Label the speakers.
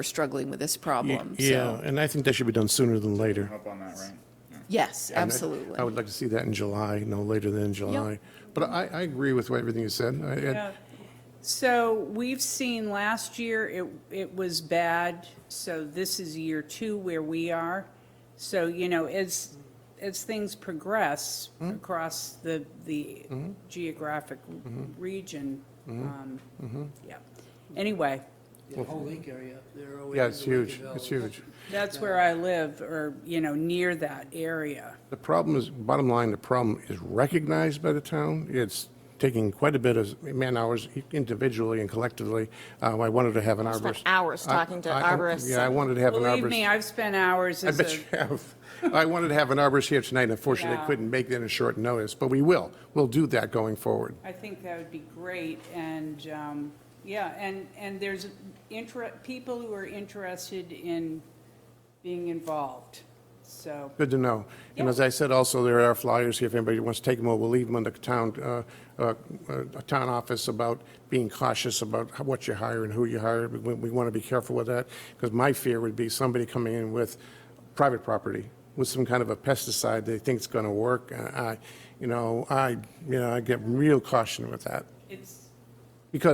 Speaker 1: are struggling with this problem,
Speaker 2: Yeah,
Speaker 1: so,
Speaker 2: and I think that should be done sooner than later.
Speaker 3: Up on that, right?
Speaker 1: yes,
Speaker 2: And I-
Speaker 1: absolutely.
Speaker 2: I would like to see that in July, no later than July. But I, I agree with what everything you said. I- I-
Speaker 4: So we've seen last year, it, it was bad, so this is year two where we are. So, you know, as, as things progress
Speaker 2: Mm-hmm.
Speaker 4: across the, the geographic
Speaker 2: Mm-hmm.
Speaker 4: region, um, yeah. Anyway,
Speaker 5: The whole lake area up there. all the way
Speaker 2: Yeah,
Speaker 5: to
Speaker 2: it's
Speaker 5: the Lake
Speaker 2: huge,
Speaker 5: of
Speaker 2: it's
Speaker 5: Ellis.
Speaker 2: huge.
Speaker 4: that's where I live, or, you know, near that area.
Speaker 2: The problem is, bottom line, the problem is recognized by the town. It's taking quite a bit of man-hours individually and collectively. Uh, I wanted to have an
Speaker 6: spent
Speaker 2: arborist.
Speaker 6: hours
Speaker 2: I-
Speaker 6: talking to
Speaker 2: I-
Speaker 6: arborists
Speaker 2: Yeah, I wanted to have an arborist.
Speaker 4: Believe me, I've spent hours
Speaker 2: I
Speaker 4: as
Speaker 2: bet
Speaker 4: a,
Speaker 2: you have. I wanted to have an arborist here tonight, unfortunately, I
Speaker 4: Yeah.
Speaker 2: couldn't make that in short notice, but we will. We'll do that going forward.
Speaker 4: I think that would be great, and, um, yeah, and, and there's inter, people who are interested in being involved, so,
Speaker 2: Good to know. And as I said, also, there are flyers here, if anybody wants to take them, or we'll leave them in the town, uh, uh, uh, town office about being cautious about how- what you hire and who you hire. We- We want to be careful with that, because my fear would be somebody coming in with private property, with some kind of a pesticide they think's going to work. Uh, I, you know, I, you know, I get real caution with that.
Speaker 4: it's,